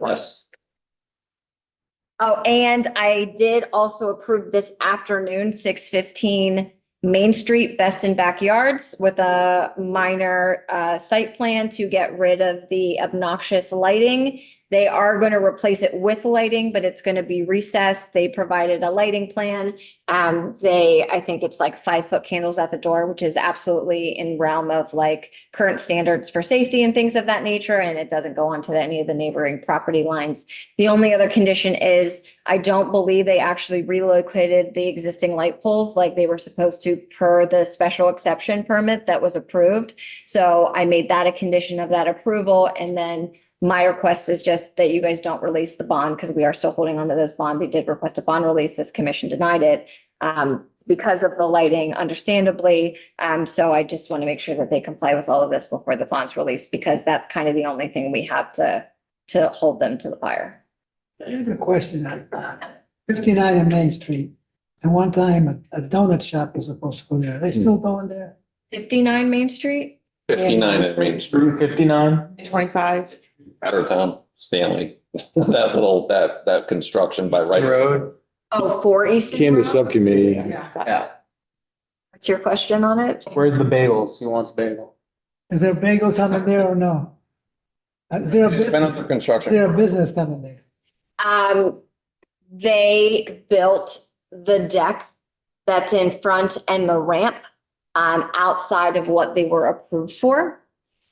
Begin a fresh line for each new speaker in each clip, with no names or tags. Yes.
Oh, and I did also approve this afternoon, six fifteen Main Street Best in Backyards with a minor uh site plan to get rid of the obnoxious lighting. They are going to replace it with lighting, but it's going to be recessed. They provided a lighting plan. Um, they, I think it's like five foot candles at the door, which is absolutely in realm of like current standards for safety and things of that nature, and it doesn't go onto any of the neighboring property lines. The only other condition is I don't believe they actually relocated the existing light poles like they were supposed to per the special exception permit that was approved. So I made that a condition of that approval. And then my request is just that you guys don't release the bond because we are still holding on to this bond. They did request a bond release. This commission denied it. Um, because of the lighting, understandably. Um, so I just want to make sure that they comply with all of this before the bond's released because that's kind of the only thing we have to, to hold them to the fire.
I have a question. Fifty-nine on Main Street, and one time a- a donut shop was supposed to go there. Are they still going there?
59 Main Street?
Fifty-nine at Main Street,
Route fifty-nine?
Twenty-five.
out of town, Stanley. That little, that, that construction by right.
Road?
Oh, four East.
Came to subcommittee.
Yeah.
What's your question on it?
Where's the bagels? Who wants bagel?
Is there bagels coming there or no? Uh, Is there a
It's been
business,
under
is there a
construction.
business coming there?
Um, they built the deck that's in front and the ramp um, outside of what they were approved for.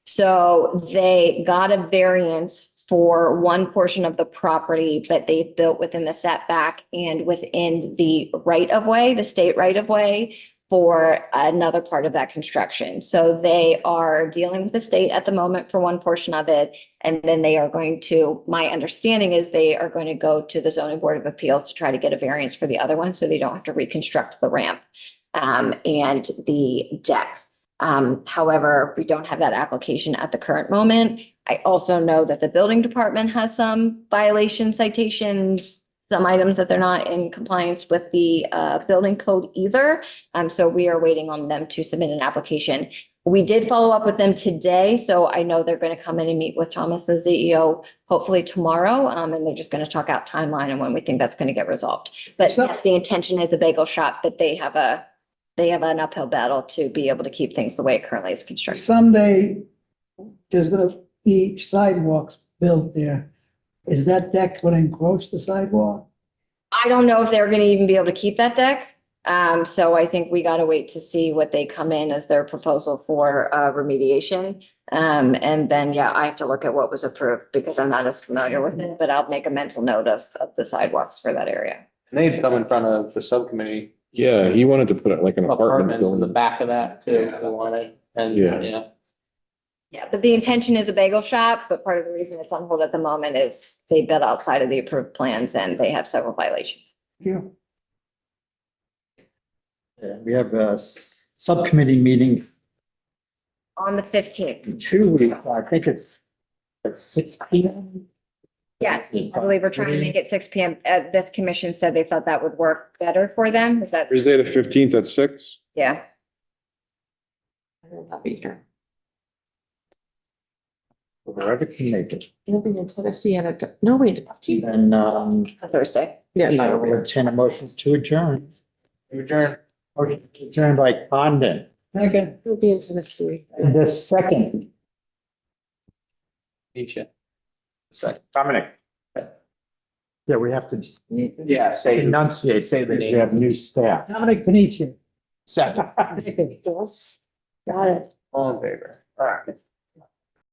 So they got a variance for one portion of the property, but they built within the setback and within the right of way, the state right of way for another part of that construction. So they are dealing with the state at the moment for one portion of it. And then they are going to, my understanding is they are going to go to the zoning board of appeals to try to get a variance for the other one, so they don't have to reconstruct the ramp. um, and the deck. Um, however, we don't have that application at the current moment. I also know that the building department has some violation citations. Some items that they're not in compliance with the uh building code either. Um, so we are waiting on them to submit an application. We did follow up with them today, so I know they're going to come in and meet with Thomas, the CEO, hopefully tomorrow. Um, and they're just going to talk out timeline and when we think that's going to get resolved. But
So-
yes, the intention is a bagel shop, but they have a, they have an uphill battle to be able to keep things the way it currently is constructed.
Someday, there's gonna be sidewalks built there. Is that deck gonna encroach the sidewalk?
I don't know if they're going to even be able to keep that deck. Um, so I think we got to wait to see what they come in as their proposal for, uh, remediation. Um, and then, yeah, I have to look at what was approved because I'm not as familiar with it, but I'll make a mental note of, of the sidewalks for that area.
And they've come in front of the subcommittee
Yeah, he wanted to put it like an apartment
apartments in the
building.
back of that too, they wanted, and,
Yeah.
yeah.
Yeah, but the intention is a bagel shop, but part of the reason it's on hold at the moment is they built outside of the approved plans and they have several violations.
Yeah.
Yeah, we have a s- subcommittee meeting
On the fifteenth,
in two weeks. I think it's at six P M.
yes, I believe we're trying to make it six P M. Uh, this commission said they thought that would work better for them. Is that,
Thursday the fifteenth at six?
yeah?
I'll be here.
Wherever can make it.
You'll be in Tennessee and it, no, wait.
And, um,
Thursday.
Yeah,
I
no,
will entertain a motion to adjourn.
You adjourn.
Motion to adjourn by Condon.
Okay.
you'll be in Tennessee.
And the second.
Meet you.
Dominic. Yeah, we have to
Yeah, say.
enunciate, say that we have new staff.
Dominic Panitia.
Second.
Yes. Got it.
All in favor. All right.